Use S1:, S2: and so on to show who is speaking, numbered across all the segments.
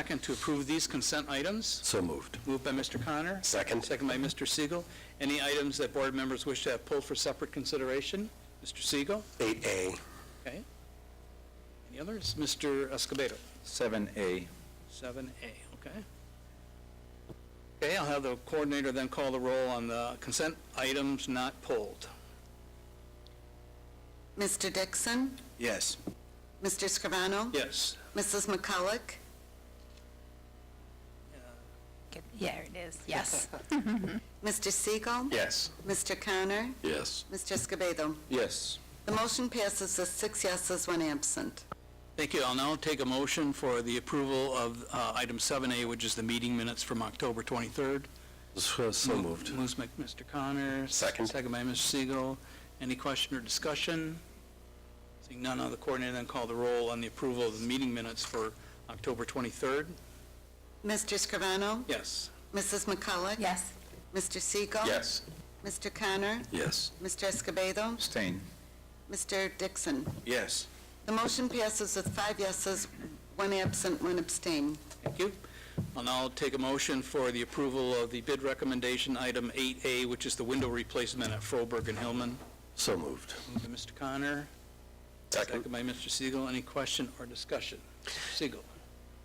S1: Second to approve these consent items,
S2: So moved.
S1: moved by Mr. Connor,
S2: Second?
S1: second by Mr. Siegel. Any items that board members wish to have pulled for separate consideration? Mr. Siegel,
S2: 8A.
S1: any others? Mr. Escobedo,
S3: 7A.
S1: 7A, okay. Okay, I'll have the coordinator then call the roll on the consent items not pulled.
S4: Mr. Dixon?
S3: Yes.
S4: Mr. Scrivano?
S1: Yes,
S4: Mrs. McCulloch?
S5: Good. Yeah, it is, yes.
S4: Mr. Siegel?
S2: Yes.
S4: Mr. Connor?
S2: Yes.
S4: Mr. Escobedo?
S3: Yes.
S4: The motion passes with six yeses, one absent.
S1: thank you. I'll now take a motion for the approval of uh, item 7A, which is the meeting minutes from October 23rd.
S2: So so moved.
S1: Moves by Mr. Connor.
S2: Second.
S1: Second by Mr. Siegel. Any question or discussion? Seeing none, I'll the coordinator then call the roll on the approval of the meeting minutes for October 23rd.
S4: Mr. Scrivano?
S1: Yes.
S4: Mrs. McCulloch?
S5: Yes,
S4: Mr. Siegel?
S2: Yes.
S4: Mr. Connor?
S2: Yes.
S4: Mr. Escobedo?
S3: Abstain.
S4: Mr. Dixon?
S3: Yes.
S4: The motion passes with five yeses, one absent, one abstain.
S1: Thank you. I'll now take a motion for the approval of the bid recommendation, item 8A, which is the window replacement at Froberg and Hillman.
S2: So moved.
S1: Moved by Mr. Connor. Second by Mr. Siegel. Any question or discussion? Siegel.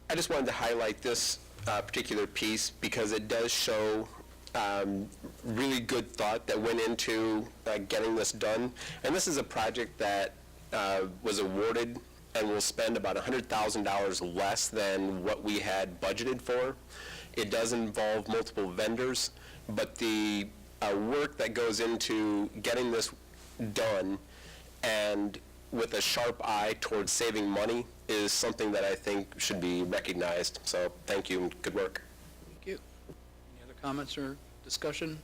S6: I just wanted to highlight this uh, particular piece because it does show um, really good thought that went into uh, getting this done. And this is a project that uh, was awarded and will spend about $100,000 less than what we had budgeted for. It does involve multiple vendors, but the uh, work that goes into getting this done and with a sharp eye towards saving money is something that I think should be recognized. So thank you and good work.
S1: Thank you. Any other comments or discussion?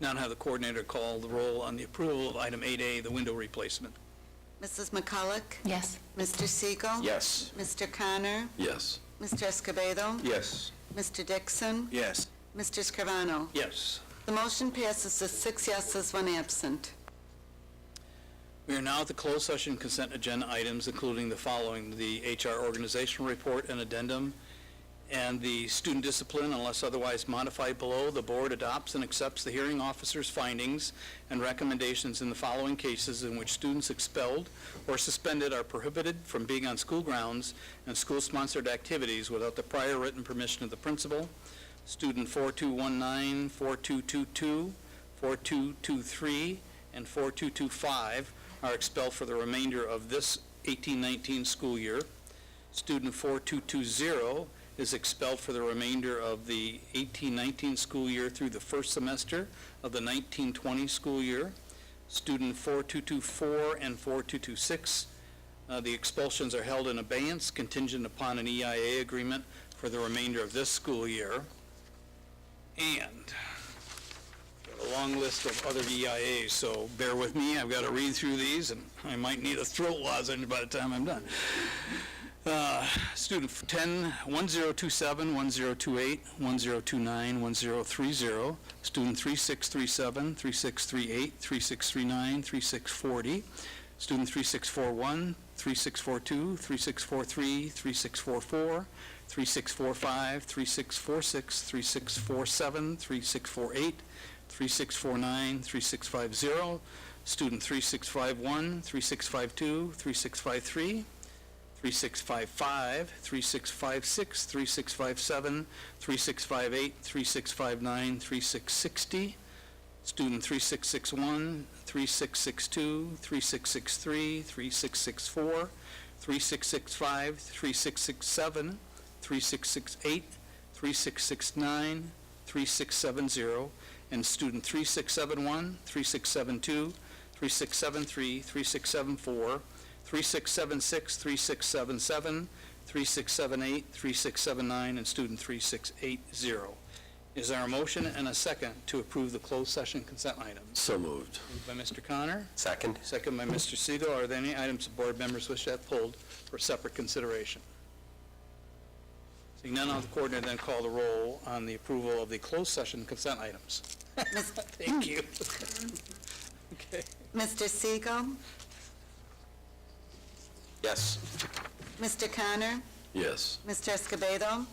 S1: Now I'll have the coordinator call the roll on the approval of item 8A, the window replacement.
S4: Mrs. McCulloch?
S5: yes,
S4: Mr. Siegel?
S2: Yes.
S4: Mr. Connor?
S2: Yes.
S4: Mr. Escobedo?
S3: Yes.
S4: Mr. Dixon?
S3: Yes.
S4: Mr. Scrivano?
S1: Yes.
S4: The motion passes with six yeses, one absent.
S1: We are now at the closed session consent agenda items, including the following, the HR organizational report and addendum, and the student discipline unless otherwise modified below. The board adopts and accepts the hearing officer's findings and recommendations in the following cases in which students expelled or suspended are prohibited from being on school grounds and school-sponsored activities without the prior written permission of the principal. Student 4219, 4222, 4223, and 4225 are expelled for the remainder of this 1819 school year. Student 4220 is expelled for the remainder of the 1819 school year through the first semester of the 1920 school year. Student 4224 and 4226, uh, the expulsions are held in abeyance contingent upon an EIA agreement for the remainder of this school year. And a long list of other EIAs, so bear with me, I've got to read through these, and I might need a throat lozenge by the time I'm done. Uh, Student 10, 1027, 1028, 1029, 1030, student 3637, 3638, 3639, 3640, student 3641, 3642, 3643, 3644, 3645, 3646, 3647, 3648, 3649, 3650, student 3651, 3652, 3653, 3655, 3656, 3657, 3658, 3659, 3660, student 3661, 3662, 3663, 3664, 3665, 3667, 3668, 3669, 3670, and student 3671, 3672, 3673, 3674, 3676, 3677, 3678, 3679, and student 3680. Is there a motion and a second to approve the closed session consent items?
S2: So moved.
S1: Moved by Mr. Connor,
S2: Second?
S1: second by Mr. Siegel. Are there any items the board members wish to have pulled for separate consideration? Seeing none, I'll have the coordinator then call the roll on the approval of the closed session consent items. Thank you. Okay.
S4: Mr. Siegel?
S2: Yes.
S4: Mr. Connor?
S2: Yes.
S4: Mr. Escobedo?